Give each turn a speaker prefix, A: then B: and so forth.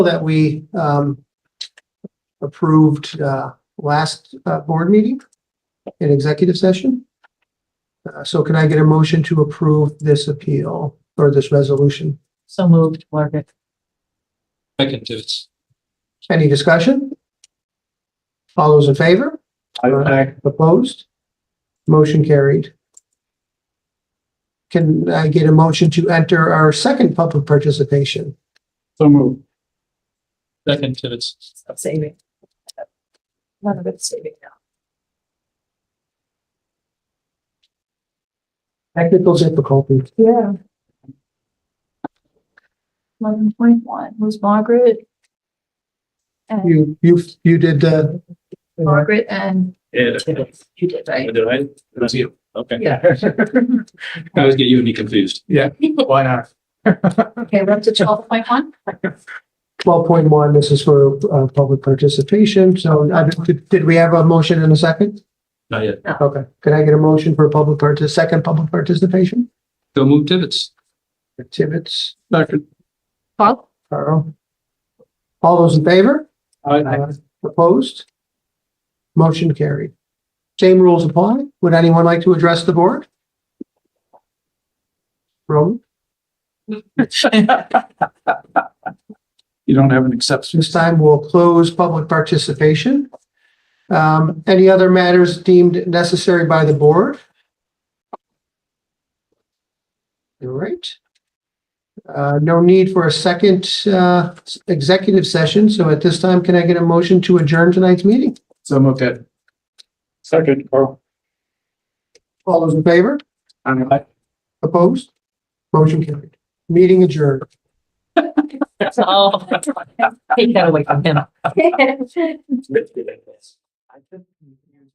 A: that we um approved uh last uh board meeting in executive session. Uh, so can I get a motion to approve this appeal or this resolution?
B: So moved, Margaret.
C: Second Tibbetts.
A: Any discussion? All those in favor?
C: Aye.
A: Opposed? Motion carried. Can I get a motion to enter our second public participation?
C: So move. Second Tibbetts.
B: Stop saving. None of it's saving now.
A: Technical difficulty.
B: Yeah. Eleven point one was Margaret. And
A: You, you, you did, uh,
B: Margaret and
C: Yeah.
B: Tibbetts. You did, right?
C: Did I? It was you. Okay.
B: Yeah.
C: I always get you and me confused.
D: Yeah, why not?
B: Okay, we're up to twelve point one.
A: twelve point one, this is for, uh, public participation. So, uh, did, did we have a motion in a second?
C: Not yet.
A: Okay. Can I get a motion for public parti, second public participation?
C: So move Tibbetts.
A: Tibbetts,
C: Second.
B: Paul?
A: Carl. All those in favor? Uh,
C: Aye.
A: Opposed? Motion carried. Same rules apply. Would anyone like to address the board? Roman,
D: You don't have an exception.
A: this time we'll close public participation. Um, any other matters deemed necessary by the board? All right. Uh, no need for a second, uh, executive session. So at this time, can I get a motion to adjourn tonight's meeting?
D: So moved. Ed. Second, Carl.
A: All those in favor?
D: Aye.
A: Opposed? Motion carried. Meeting adjourned.
B: Oh. Take that away from him.
D: I think-